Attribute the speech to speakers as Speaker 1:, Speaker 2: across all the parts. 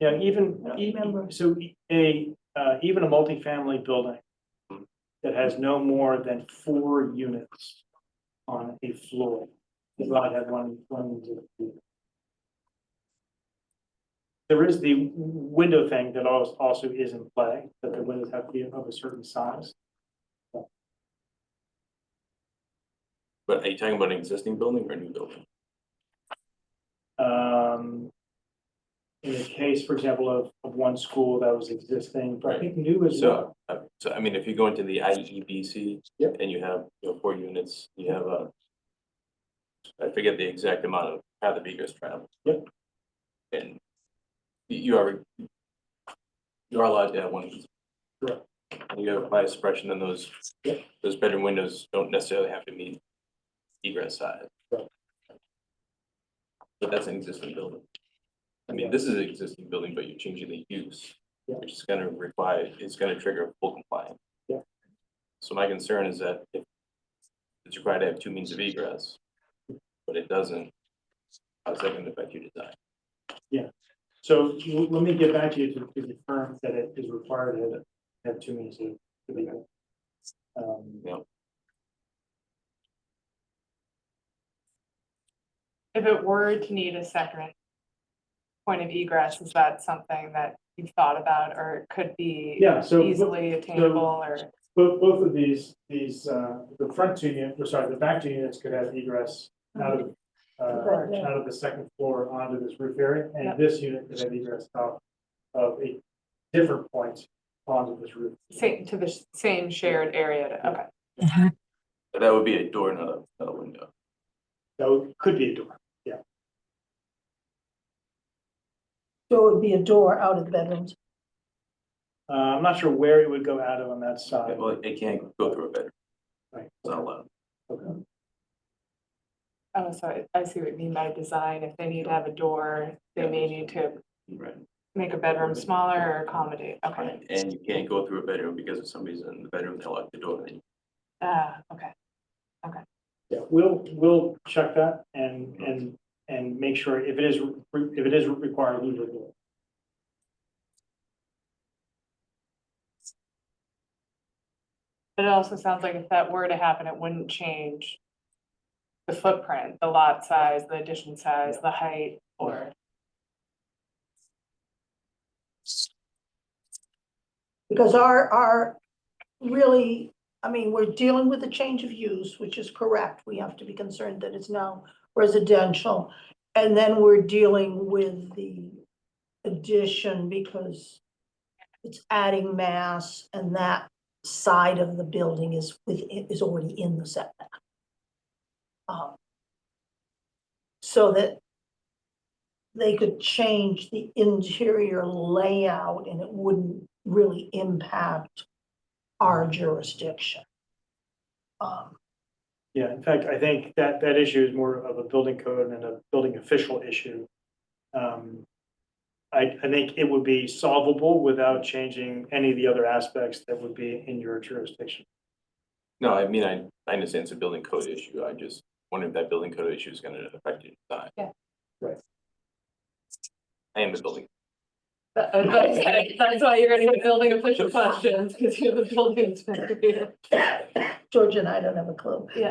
Speaker 1: Yeah, even,
Speaker 2: I don't
Speaker 1: e-
Speaker 2: remember.
Speaker 1: so e- a, uh, even a multifamily building that has no more than four units on a floor. The lot had one, one. unit. There is the window thing that also, also is in play, that the windows have to be of a certain size.
Speaker 3: But are you talking about an existing building or a new building?
Speaker 1: Um, in the case, for example, of, of one school that was existing, but I think new is.
Speaker 3: So, uh, so I mean, if you go into the I E B C.
Speaker 1: Yep.
Speaker 3: And you have, you know, four units, you have a. I forget the exact amount of how the vehicles travel.
Speaker 1: Yep.
Speaker 3: And you you are. You are allowed to have one.
Speaker 1: Correct.
Speaker 3: And you have by suppression and those,
Speaker 1: Yep.
Speaker 3: those bedroom windows don't necessarily have to meet egress size.
Speaker 1: Correct.
Speaker 3: But that's an existing building. I mean, this is an existing building, but you're changing the use which is gonna require, it's gonna trigger full compliance.
Speaker 1: Yeah.
Speaker 3: So my concern is that if it's required to have two means of egress, but it doesn't, how's that gonna affect your design?
Speaker 1: So l- let me get back to you to to confirm that it is required to have- have two means of. to be good. Um,
Speaker 3: Yeah.
Speaker 4: If it were to need a second point of egress, is that something that you've thought about or could be
Speaker 1: Yeah, so bo-
Speaker 4: easily attainable or?
Speaker 1: both both of these, these, uh, the front two units, or sorry, the back two units could have egress out of.
Speaker 2: Right,
Speaker 1: Uh,
Speaker 2: yeah.
Speaker 1: out of the second floor onto this roof area,
Speaker 4: Yeah.
Speaker 1: and this unit could have egress out of a different point onto this roof.
Speaker 4: Same, to the s- same shared area, to- okay.
Speaker 3: But That would be a door, not a, not a window.
Speaker 1: That would- could be a door.
Speaker 2: So it would be a door out of the bedrooms.
Speaker 1: Uh, I'm not sure where it would go out of on that side.
Speaker 3: Well, it can't go through a bedroom,
Speaker 1: Right.
Speaker 3: it's not allowed.
Speaker 1: Okay.
Speaker 4: Oh, so I- I see what you mean by design. If they need to have a door, they may need to
Speaker 3: Right.
Speaker 4: make a bedroom smaller or accommodate, okay.
Speaker 3: Right, and you can't go through a bedroom because if somebody's in the bedroom, they lock the door, then
Speaker 4: Ah, okay.
Speaker 1: Yeah, we'll, we'll check that and, and, and make sure if it is, re- if it is required, we will do it.
Speaker 4: But it also sounds like if that were to happen, it wouldn't change the footprint, the lot size, the addition size, the height, or,
Speaker 2: Because our, our, really, I mean, we're dealing with a change of use, which is correct. We have to be concerned that it's now residential. And then we're dealing with the addition because it's adding mass and that side of the building is with, is already in the setback. Um, So that they could change the interior layout and it wouldn't really impact our jurisdiction. Um,
Speaker 1: Yeah, in fact, I think that, that issue is more of a building code and a building official issue. Um, I, I think it would be solvable without changing any of the other aspects that would be in your jurisdiction.
Speaker 3: no, I mean, I, I understand it's a building code issue, I just wonder if that building code issue is gonna affect your design.
Speaker 4: Yeah.
Speaker 1: Right.
Speaker 3: I am a building
Speaker 4: That- that's that's why you're gonna get building official questions, because you're the building inspector here.
Speaker 2: George and I don't have a clue.
Speaker 4: Yeah.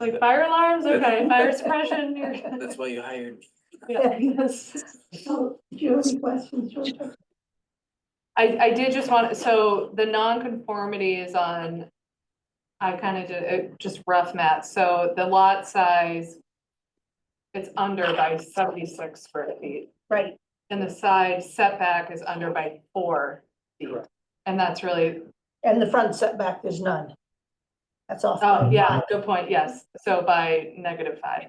Speaker 4: Like fire alarms, okay, fire suppression, you're.
Speaker 3: That's why you hired me.
Speaker 4: yeah, yes.
Speaker 2: So, do you have any questions, George?
Speaker 4: I, I did just want, so the non-conformity is on, I kind of did, it just rough math, so the lot size, it's under by seventy-six square feet,
Speaker 2: Right,
Speaker 4: and the side setback is under by four feet.
Speaker 1: Correct.
Speaker 4: And that's really,
Speaker 2: and the front setback, there's none. That's off.
Speaker 4: oh, yeah, good point, yes, so by negative five.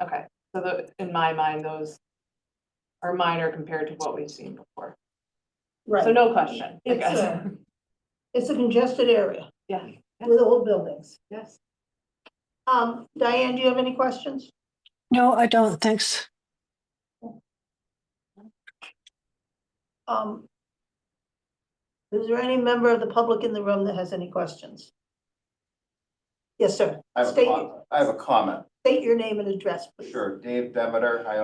Speaker 4: Okay, so the, in my mind, those are minor compared to what we've seen before, so
Speaker 2: Right,
Speaker 4: no question, I
Speaker 2: It's,
Speaker 4: guess,
Speaker 2: uh, it's a congested area
Speaker 4: yeah,
Speaker 2: with old buildings.
Speaker 4: yes.
Speaker 2: Um, Diane, do you have any questions?
Speaker 5: No, I don't, thanks.
Speaker 2: Um, is there any member of the public in the room that has any questions? Yes, sir.
Speaker 6: I have a
Speaker 2: State-
Speaker 6: comment, I have a comment,
Speaker 2: State your name and address, please.
Speaker 6: sure, Dave Demeter, I